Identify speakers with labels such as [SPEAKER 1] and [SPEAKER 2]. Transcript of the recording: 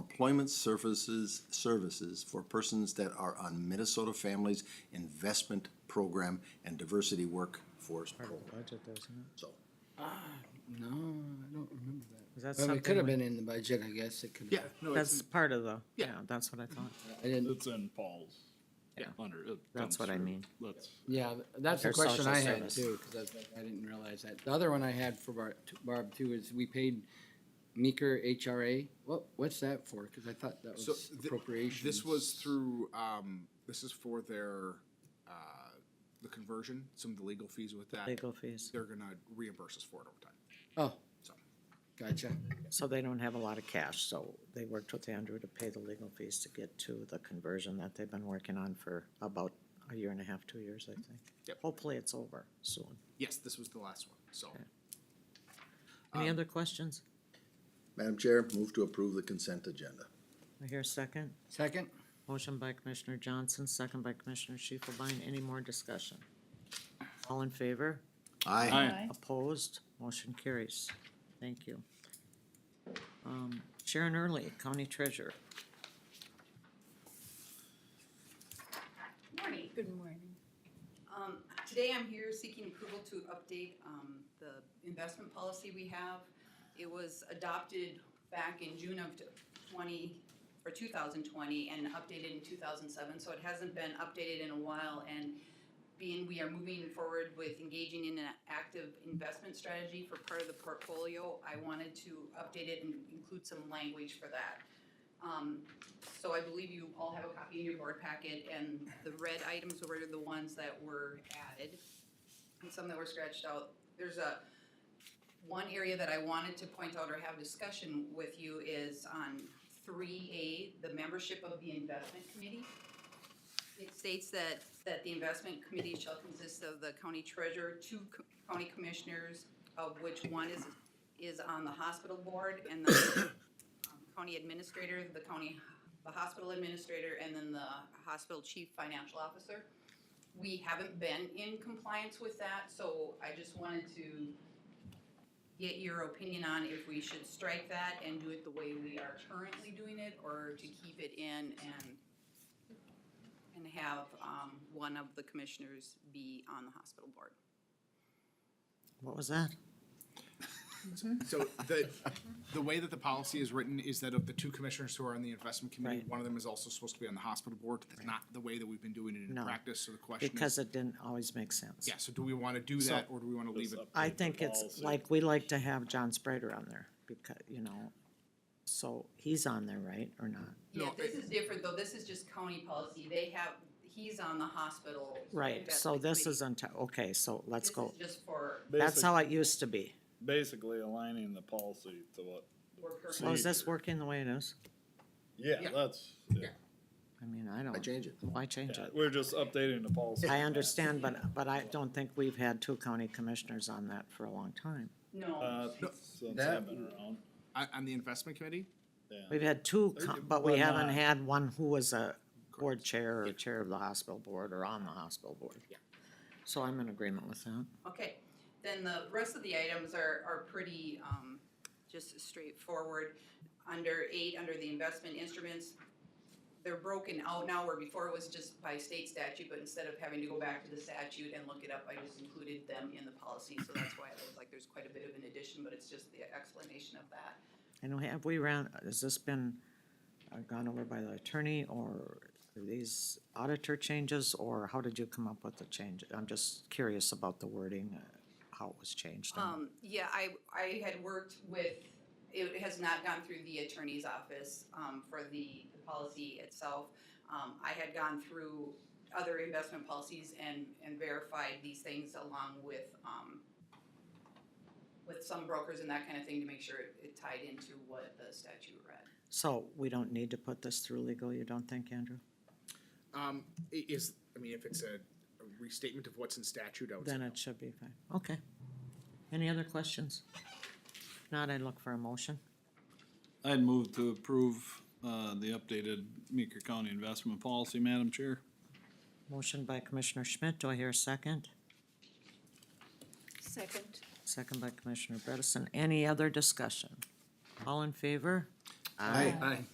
[SPEAKER 1] employment services, services for persons that are on Minnesota Families Investment Program and Diversity Workforce Program.
[SPEAKER 2] Budget, though, isn't it?
[SPEAKER 1] So,
[SPEAKER 3] No, I don't remember that.
[SPEAKER 2] Is that
[SPEAKER 3] Well, it could
[SPEAKER 2] something, with-
[SPEAKER 3] have been in the budget, I guess, it could
[SPEAKER 1] yeah,
[SPEAKER 3] have.
[SPEAKER 4] No, it's,
[SPEAKER 2] that's
[SPEAKER 4] in-
[SPEAKER 2] part of the,
[SPEAKER 1] Yeah.
[SPEAKER 2] yeah, that's what I thought.
[SPEAKER 3] I didn't,
[SPEAKER 4] it's in Paul's.
[SPEAKER 2] Yeah.
[SPEAKER 4] Under, it
[SPEAKER 2] That's
[SPEAKER 4] comes
[SPEAKER 2] what I
[SPEAKER 4] through.
[SPEAKER 2] mean.
[SPEAKER 4] That's,
[SPEAKER 3] yeah, that's a
[SPEAKER 2] Their
[SPEAKER 3] question
[SPEAKER 2] social
[SPEAKER 3] I had
[SPEAKER 2] service.
[SPEAKER 3] too, because I, I didn't realize that. The other one I had for Barb, Barb too, is we paid Meeker HRA. What, what's that for? Because I thought that
[SPEAKER 5] So
[SPEAKER 3] was
[SPEAKER 5] thi-
[SPEAKER 3] appropriations.
[SPEAKER 5] This was through, um, this is for their, uh, the conversion, some of the legal fees with that.
[SPEAKER 2] Legal fees.
[SPEAKER 5] They're gonna reimburse us for it over time.
[SPEAKER 3] Oh,
[SPEAKER 5] So,
[SPEAKER 3] gotcha.
[SPEAKER 2] So they don't have a lot of cash, so they worked with Andrew to pay the legal fees to get to the conversion that they've been working on for about a year and a half, two years, I think.
[SPEAKER 3] Mm-hmm.
[SPEAKER 5] Yep.
[SPEAKER 2] Hopefully it's over soon.
[SPEAKER 5] yes, this was the last one, so.
[SPEAKER 2] Any
[SPEAKER 3] Um,
[SPEAKER 2] other questions?
[SPEAKER 1] Madam Chair, move to approve the consent agenda.
[SPEAKER 2] I hear a second.
[SPEAKER 3] Second?
[SPEAKER 2] Motion by Commissioner Johnson, second by Commissioner Shifelbein. Any more discussion? All in favor?
[SPEAKER 1] Aye.
[SPEAKER 4] Aye.
[SPEAKER 2] Opposed? Motion carries. Thank you. Um, Sharon Early, County Treasurer.
[SPEAKER 6] Morning. Good morning. Um, today I'm here seeking approval to update, um, the investment policy we have. It was adopted back in June of twenty, or two thousand twenty, and updated in two thousand seven, so it hasn't been updated in a while, and being we are moving forward with engaging in an active investment strategy for part of the portfolio, I wanted to update it and include some language for that. Um, so I believe you all have a copy in your board packet, and the red items were the ones that were added, and some that were scratched out. There's a, one area that I wanted to point out or have discussion with you is on three A, the membership of the investment committee. It states that, that the investment committee shall consist of the county treasurer, two co- county commissioners, of which one is, is on the hospital board, and the um, county administrator, the county, the hospital administrator, and then the hospital chief financial officer. We haven't been in compliance with that, so I just wanted to get your opinion on if we should strike that and do it the way we are currently doing it, or to keep it in and and have, um, one of the commissioners be on the hospital board.
[SPEAKER 2] What was that?
[SPEAKER 5] So the, the way that the policy is written is that of the two commissioners who are on the investment committee,
[SPEAKER 2] Right.
[SPEAKER 5] one of them is also supposed to be on the hospital board. That's not the way that we've been doing it in
[SPEAKER 2] No.
[SPEAKER 5] practice, so the question
[SPEAKER 2] Because
[SPEAKER 5] is,
[SPEAKER 2] it didn't always make sense.
[SPEAKER 5] yeah, so do we wanna do that, or do we wanna leave it?
[SPEAKER 2] I think it's like, we like to have John Sprader on there because, you know, so he's on there, right, or not?
[SPEAKER 6] Yeah,
[SPEAKER 5] No,
[SPEAKER 6] this
[SPEAKER 5] it-
[SPEAKER 6] is different though, this is just county policy, they have, he's on the hospital.
[SPEAKER 2] Right, so
[SPEAKER 6] investment
[SPEAKER 2] this
[SPEAKER 6] committee.
[SPEAKER 2] isn't, okay, so let's
[SPEAKER 6] This
[SPEAKER 2] go.
[SPEAKER 6] is just for,
[SPEAKER 2] That's
[SPEAKER 7] Basic-
[SPEAKER 2] how it used to be.
[SPEAKER 7] Basically aligning the policy to what,
[SPEAKER 6] we're currently.
[SPEAKER 2] So is this
[SPEAKER 7] Procedure.
[SPEAKER 2] working the way it is?
[SPEAKER 7] yeah, that's, yeah.
[SPEAKER 2] I mean, I
[SPEAKER 1] I
[SPEAKER 2] don't,
[SPEAKER 1] change it.
[SPEAKER 2] why change
[SPEAKER 7] Yeah,
[SPEAKER 2] it?
[SPEAKER 7] We're just updating the policy.
[SPEAKER 2] I understand, but, but I don't think we've had two county commissioners on that for a long time.
[SPEAKER 6] No,
[SPEAKER 7] Uh, since
[SPEAKER 1] that-
[SPEAKER 7] I've been around,
[SPEAKER 5] On, on the investment committee?
[SPEAKER 7] yeah.
[SPEAKER 2] We've had two, co- but we
[SPEAKER 7] But
[SPEAKER 2] haven't
[SPEAKER 7] not-
[SPEAKER 2] had one who was a board chair or chair of the hospital board or on the hospital board. So I'm in agreement with that.
[SPEAKER 6] okay, then the rest of the items are, are pretty, um, just straightforward. Under eight, under the investment instruments, they're broken out now where before it was just by state statute, but instead of having to go back to the statute and look it up, I just included them in the policy, so that's why it was like, there's quite a bit of an addition, but it's just the explanation of that.
[SPEAKER 2] And we- have we ran, has this been uh, gone over by the attorney or are these auditor changes? Or how did you come up with the change? I'm just curious about the wording, uh, how it was changed. and-
[SPEAKER 6] Um, yeah, I, I had worked with, it has not gone through the attorney's office, um, for the, the policy itself. Um, I had gone through other investment policies and, and verified these things along with, um, with some brokers and that kind of thing to make sure it, it tied into what the statute read.
[SPEAKER 2] So we don't need to put this through legal, you don't think, Andrew?
[SPEAKER 5] Um, i- is, I mean, if it's a a restatement of what's in statute, I would say
[SPEAKER 2] Then
[SPEAKER 5] no.
[SPEAKER 2] it should be fine. Okay. Any other questions? If Not, I look for a motion.
[SPEAKER 4] I'd move to approve, uh, the updated Meeker County investment policy, Madam Chair.
[SPEAKER 2] Motion by Commissioner Schmidt, do I hear a second?
[SPEAKER 8] Second.
[SPEAKER 2] Second by Commissioner Bredesen. Any other discussion? All in favor?
[SPEAKER 1] Aye.